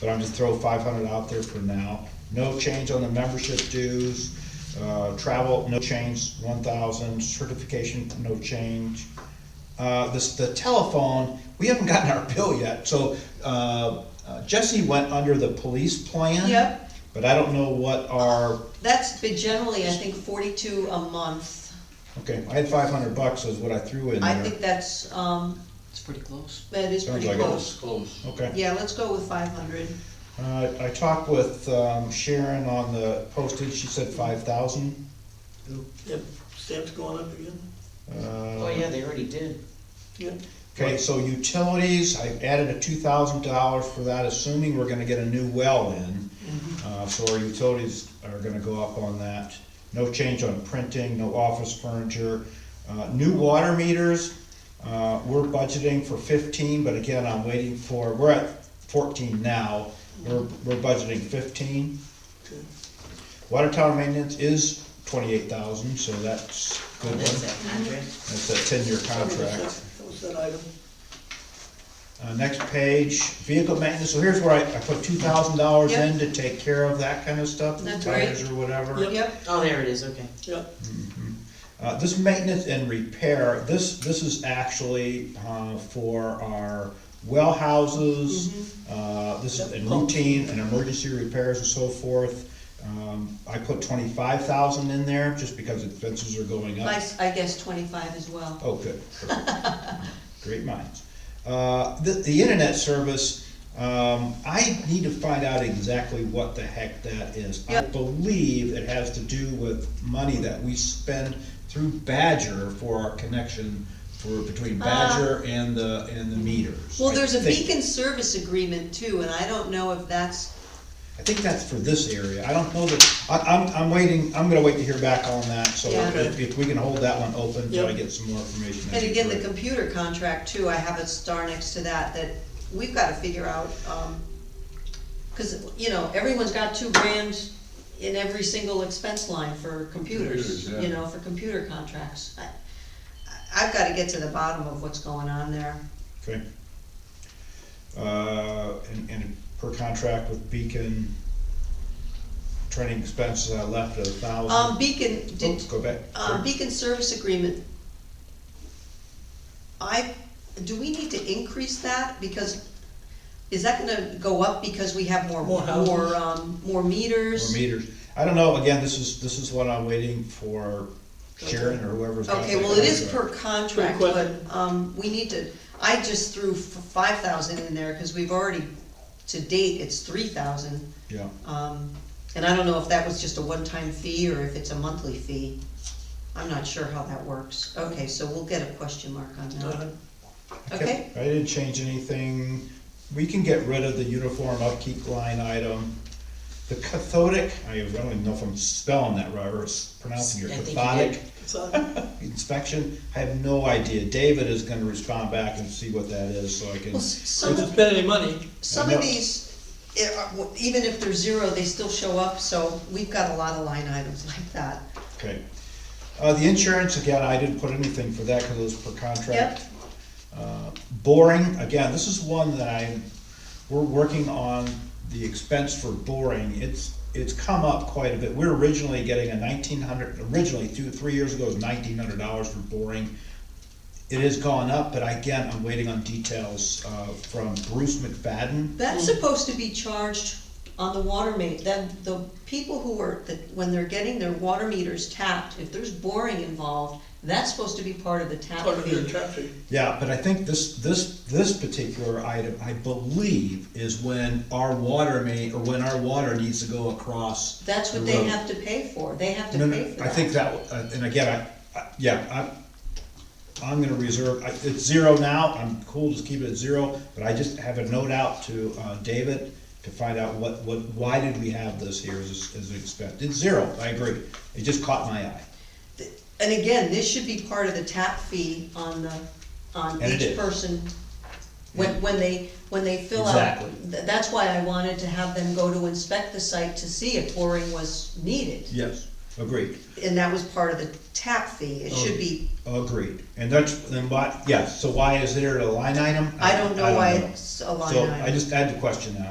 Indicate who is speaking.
Speaker 1: but I'm just throwing five hundred out there for now. No change on the membership dues, uh, travel, no change, one thousand, certification, no change. Uh, this, the telephone, we haven't gotten our bill yet, so, uh, uh, Jesse went under the police plan.
Speaker 2: Yep.
Speaker 1: But I don't know what our,
Speaker 2: That's been generally, I think, forty-two a month.
Speaker 1: okay, I had five hundred bucks is what I threw in there.
Speaker 2: I think that's, um,
Speaker 3: It's pretty close.
Speaker 2: that is
Speaker 1: Sounds like
Speaker 2: pretty
Speaker 1: it.
Speaker 2: close.
Speaker 3: Close.
Speaker 1: Okay.
Speaker 2: Yeah, let's go with five hundred.
Speaker 1: Uh, I talked with um, Sharon on the postage, she said five thousand.
Speaker 4: Yep, stamps going up again,
Speaker 3: Oh, yeah, they already did.
Speaker 4: yeah.
Speaker 1: Okay, so utilities, I added a two thousand dollars for that, assuming we're gonna get a new well in. Uh, so our utilities are gonna go up on that. No change on printing, no office furniture. Uh, new water meters, uh, we're budgeting for fifteen, but again, I'm waiting for, we're at fourteen now. We're, we're budgeting fifteen.
Speaker 4: okay.
Speaker 1: Water tower maintenance is twenty-eight thousand, so that's a good
Speaker 3: That's
Speaker 1: one.
Speaker 3: that contract.
Speaker 1: That's a ten-year
Speaker 4: That was that-
Speaker 1: contract.
Speaker 4: That was that item,
Speaker 1: Uh, next page, vehicle maintenance, so here's where I, I put two thousand dollars
Speaker 2: Yep.
Speaker 1: in to take care of that kind of stuff, the
Speaker 2: That's
Speaker 1: tires or whatever.
Speaker 4: Yep.
Speaker 2: Yep,
Speaker 3: Oh, there it is, okay.
Speaker 4: yep,
Speaker 1: Uh, this maintenance and repair, this, this is actually, uh, for our well houses.
Speaker 2: Mm-hmm.
Speaker 1: Uh, this is in routine and emergency repairs and so forth. Um, I put twenty-five thousand in there, just because expenses are going up.
Speaker 2: I, I guess twenty-five as well.
Speaker 1: Oh, good. Great minds. Uh, The, the internet service, um, I need to find out exactly what the heck that is. I
Speaker 2: Yep.
Speaker 1: believe it has to do with money that we spend through Badger for our connection for, between Badger and the, and the meters.
Speaker 2: Uh, Well,
Speaker 1: I
Speaker 2: there's a
Speaker 1: think-
Speaker 2: beacon service agreement too, and I don't know if that's,
Speaker 1: I think that's for this area. I don't know that, I, I'm, I'm waiting, I'm gonna wait to hear back on that, so
Speaker 2: Yeah.
Speaker 1: if, if we can hold that one open until I
Speaker 4: Yep.
Speaker 1: get some more information. that'd
Speaker 2: and
Speaker 1: be
Speaker 2: again, the
Speaker 1: great.
Speaker 2: computer contract too, I have a star next to that, that we've gotta figure out, um, cause, you know, everyone's got two grand in every single expense line for computers,
Speaker 5: Computers, yeah.
Speaker 2: you know, for computer contracts. I- I- I've gotta get to the bottom of what's going on there.
Speaker 1: Okay. Uh, and, and per contract with Beacon, training expenses, I left a
Speaker 2: Um,
Speaker 1: thousand.
Speaker 2: Beacon, did,
Speaker 1: Oops, go back.
Speaker 2: Um, beacon service agreement. I, do we need to increase that, because, is that gonna go up because we have more,
Speaker 4: More houses?
Speaker 2: more, um, more
Speaker 1: Or
Speaker 2: meters?
Speaker 1: meters. I don't know, again, this is, this is what I'm waiting for Sharon or whoever's got
Speaker 2: Okay,
Speaker 1: the
Speaker 2: well, it is per
Speaker 1: contract.
Speaker 2: contract,
Speaker 4: Good
Speaker 2: but,
Speaker 4: question.
Speaker 2: um, we need to, I just threw five thousand in there, cause we've already, to date, it's three thousand.
Speaker 1: Yeah,
Speaker 2: Um, and I don't know if that was just a one-time fee or if it's a monthly fee. I'm not sure how that works. Okay, so we'll get a question mark on that.
Speaker 4: uh,
Speaker 1: I kept-
Speaker 2: Okay.
Speaker 1: I didn't change anything. We can get rid of the uniform upkeep line item. The cathodic, I don't even know if I'm spelling that right or s- pronouncing it,
Speaker 3: I think you
Speaker 1: cathodic.
Speaker 3: did.
Speaker 4: it's on,
Speaker 1: inspection, I have no idea. David is gonna respond back and see what that is, so I can,
Speaker 2: Well, s- some
Speaker 4: if
Speaker 2: of
Speaker 4: it's spend any money,
Speaker 2: Some of these, eh, are- well, even if they're zero, they still show up, so we've got a lot of line items like that.
Speaker 1: okay. Uh, the insurance, again, I didn't put anything for that, cause it was per contract. Uh, Boring, again, this is one that I, we're working on the expense for boring. It's, it's come up quite a bit. We We're originally getting a nineteen hundred, originally, two, three years ago, it was nineteen hundred dollars for boring. It has gone up, but again, I'm waiting on details, uh, from Bruce McFadden.
Speaker 2: That's
Speaker 4: Mm.
Speaker 2: supposed to be charged on the water ma, then the people who are, that, when they're getting their water meters tapped, if there's boring involved, that's supposed to be part of the tap
Speaker 4: part of your
Speaker 2: fee.
Speaker 4: traffic.
Speaker 1: Yeah, but I think this, this, this particular item, I believe, is when our water main, or when our water needs to go across.
Speaker 2: That's what
Speaker 1: the
Speaker 2: they
Speaker 1: road.
Speaker 2: have to pay for, they have to
Speaker 1: No, no,
Speaker 2: pay for that.
Speaker 1: I think that, uh, and again, I, I, yeah, I, I'm gonna reserve, I- it's zero now, I'm cool, just keep it at zero, but I just have a note out to, uh, David to find out what, what, why did we have this here as, as expected, it's zero, I agree, it just caught my eye.
Speaker 2: And again, this should be part of the tap fee on the, on
Speaker 1: And it
Speaker 2: each
Speaker 1: is.
Speaker 2: person. When, when they, when they fill out,
Speaker 1: Exactly.
Speaker 2: Th- that's why I wanted to have them go to inspect the site to see if boring was needed.
Speaker 1: Yes. Agreed.
Speaker 2: And that was part of the tap fee,
Speaker 1: Oh,
Speaker 2: it should be,
Speaker 1: Agreed, and that's, then why, yeah, so why is there a line item?
Speaker 2: I don't know why it's a line
Speaker 1: So
Speaker 2: item.
Speaker 1: I just had the question now.